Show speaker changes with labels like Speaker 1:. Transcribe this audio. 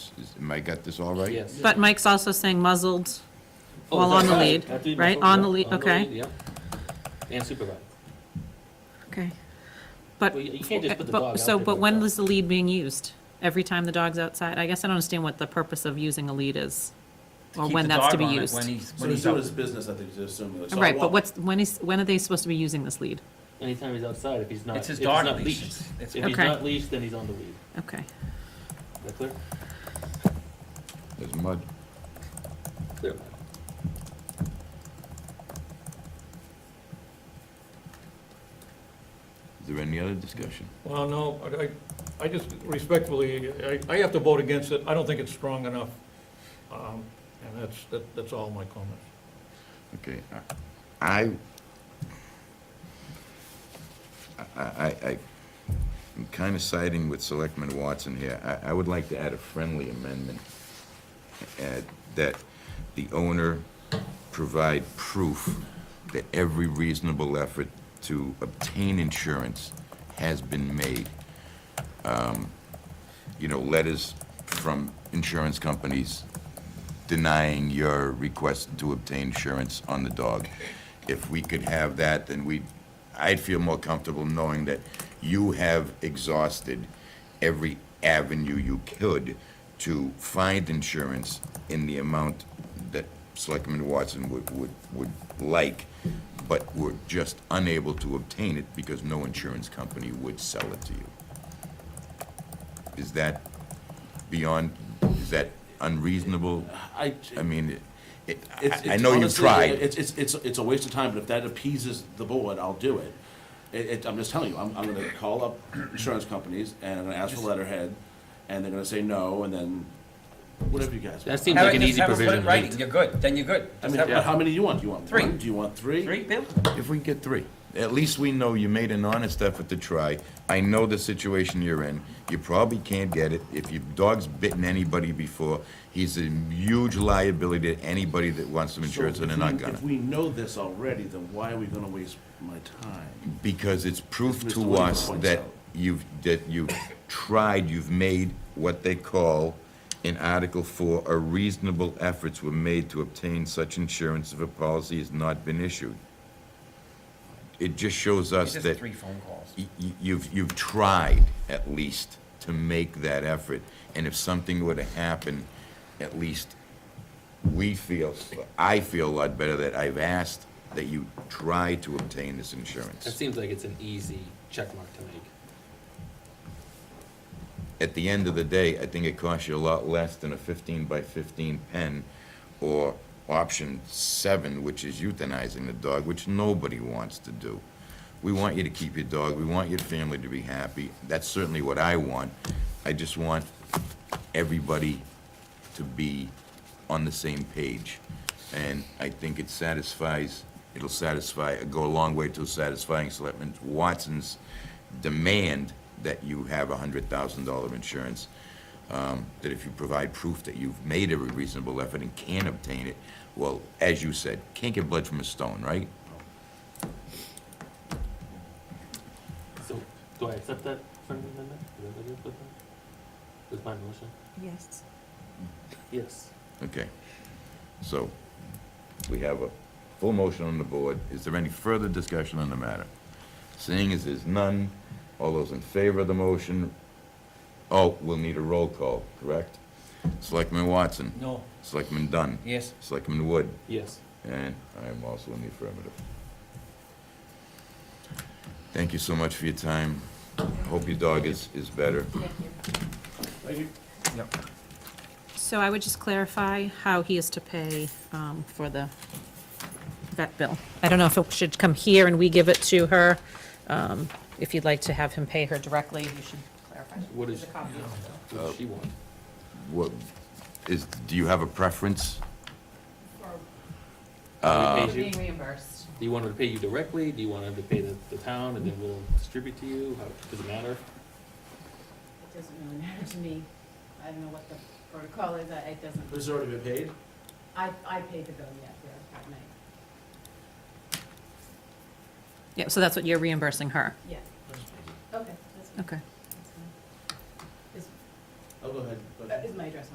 Speaker 1: Is- Am I got this all right?
Speaker 2: Yes.
Speaker 3: But Mike's also saying muzzled
Speaker 2: Oh,
Speaker 3: while on the
Speaker 2: sorry,
Speaker 3: lead,
Speaker 2: I have to be
Speaker 3: right?
Speaker 2: mindful,
Speaker 3: On
Speaker 2: yeah,
Speaker 3: the lead, okay,
Speaker 2: yeah. And supervised.
Speaker 3: okay. But,
Speaker 2: Well, you- you can't just put the dog
Speaker 3: but,
Speaker 2: out
Speaker 3: so,
Speaker 2: there
Speaker 3: but
Speaker 2: like
Speaker 3: when
Speaker 2: that.
Speaker 3: is the lead being used? Every time the dog's outside? I guess I don't understand what the purpose of using a lead is, or
Speaker 4: keep
Speaker 3: when
Speaker 4: the
Speaker 3: that's to
Speaker 4: dog
Speaker 3: be
Speaker 4: on it
Speaker 3: used.
Speaker 4: When he's,
Speaker 5: So
Speaker 4: when
Speaker 5: he's
Speaker 4: he's
Speaker 5: doing
Speaker 4: out.
Speaker 5: his business, I think, just assuming. like, so I
Speaker 3: Right, but
Speaker 5: walk-
Speaker 3: what's, when is, when are they supposed to be using this lead?
Speaker 2: Anytime he's outside, if he's not.
Speaker 4: It's
Speaker 2: if
Speaker 4: his
Speaker 2: he's
Speaker 4: dog
Speaker 2: not
Speaker 4: leash.
Speaker 2: leashed.
Speaker 4: It's-
Speaker 2: If he's
Speaker 3: Okay.
Speaker 2: not leashed, then he's on the lead.
Speaker 3: Okay,
Speaker 2: Is that clear?
Speaker 1: There's mud.
Speaker 2: Clear.
Speaker 1: Is there any other discussion?
Speaker 6: Well, no, I, I just respectfully, I, I have to vote against it. I don't think it's strong enough. Um, And that's, that- that's all my comments.
Speaker 1: Okay, I, I, I, I- I'm kind of siding with Selectman Watson here. I, I would like to add a friendly amendment, uh, that the owner provide proof that every reasonable effort to obtain insurance has been made. Um, You know, letters from insurance companies denying your request to obtain insurance on the dog. If we could have that, then we, I'd feel more comfortable knowing that you have exhausted every avenue you could to find insurance in the amount that Selectman Watson would, would, would like, but were just unable to obtain it because no insurance company would sell it to you. Is that beyond, is that unreasonable?
Speaker 5: I,
Speaker 1: I mean, it,
Speaker 5: it's-
Speaker 1: I, I
Speaker 5: it's
Speaker 1: know you've
Speaker 5: honestly,
Speaker 1: tried.
Speaker 5: It's, it's, it's, it's a waste of time, but if that appeases the board, I'll do it. It, it, I'm just telling you, I'm, I'm gonna call up insurance companies and I'm gonna ask for letterhead, and they're gonna say no, and then, whatever you guys.
Speaker 2: That
Speaker 5: want.
Speaker 2: seems
Speaker 4: Have
Speaker 2: like
Speaker 4: it-
Speaker 2: an
Speaker 4: just
Speaker 2: easy
Speaker 4: have it put
Speaker 2: provision.
Speaker 4: in writing. You're good, then you're good.
Speaker 5: I
Speaker 4: Just
Speaker 5: mean,
Speaker 4: have it-
Speaker 5: but how many do you want? Do you want
Speaker 4: Three.
Speaker 5: one? Do you want three?
Speaker 4: Three, Bill?
Speaker 1: If we can get three, at least we know you made an honest effort to try. I know the situation you're in. You probably can't get it. If your dog's bitten anybody before, he's a huge liability to anybody that wants some
Speaker 5: So
Speaker 1: insurance and
Speaker 5: if
Speaker 1: they're not
Speaker 5: we-
Speaker 1: gonna.
Speaker 5: If we know this already, then why are we gonna waste my time?
Speaker 1: Because it's proof
Speaker 5: Mr.
Speaker 1: to
Speaker 5: Williams
Speaker 1: us
Speaker 5: points
Speaker 1: that
Speaker 5: out.
Speaker 1: you've, that you've tried, you've made what they call in Article Four, "A reasonable efforts were made to obtain such insurance if a policy has not been issued." It just shows us
Speaker 4: It's just
Speaker 1: that
Speaker 4: three phone calls.
Speaker 1: y- y- you've, you've tried at least to make that effort. And if something were to happen, at least we feel, I feel a lot better that I've asked that you try to obtain this insurance.
Speaker 2: That seems like it's an easy check mark to make.
Speaker 1: at the end of the day, I think it costs you a lot less than a fifteen by fifteen pen or option seven, which is euthanizing the dog, which nobody wants to do. We want you to keep your dog, we want your family to be happy, that's certainly what I want. I just want everybody to be on the same page. And I think it satisfies, it'll satisfy, go a long way to satisfying Selectman Watson's demand that you have a hundred thousand dollar insurance. Um, that if you provide proof that you've made every reasonable effort and can obtain it, well, as you said, can't get blood from a stone, right?
Speaker 2: So, do I accept that friendly amendment? Is that what you put down? With my motion?
Speaker 3: yes.
Speaker 2: Yes.
Speaker 1: Okay. So, we have a full motion on the board. Is there any further discussion on the matter? Seeing as there's none, all those in favor of the motion, oh, we'll need a roll call, correct? Selectman Watson,
Speaker 6: No.
Speaker 1: Selectman Dunn,
Speaker 4: Yes.
Speaker 1: Selectman Wood,
Speaker 2: Yes.
Speaker 1: and I am also in the affirmative. Thank you so much for your time. Hope your dog is, is better.
Speaker 4: Yep.
Speaker 3: So I would just clarify how he is to pay um, for the vet bill. I don't know if it should come here and we give it to her. Um, If you'd like to have him pay her directly, you should clarify.
Speaker 2: What is-
Speaker 3: There's a copy of the bill.
Speaker 2: What does she want?
Speaker 1: What, is, do you have a preference? Uh,
Speaker 2: Do we pay you-
Speaker 3: Being reimbursed.
Speaker 2: do you want her to pay you directly? Do you want her to pay the, the town and then we'll distribute to you? How, does it matter?
Speaker 7: It doesn't really matter to me. I don't know what the protocol is, I- it doesn't,
Speaker 5: This has already been paid?
Speaker 7: I, I paid the bill yet, yeah, that night,
Speaker 3: Yeah, so that's what you're reimbursing her.
Speaker 7: yeah. Okay, that's fine.
Speaker 3: Okay.
Speaker 7: That's fine.
Speaker 5: Oh, go ahead. go ahead.
Speaker 7: Is, is my address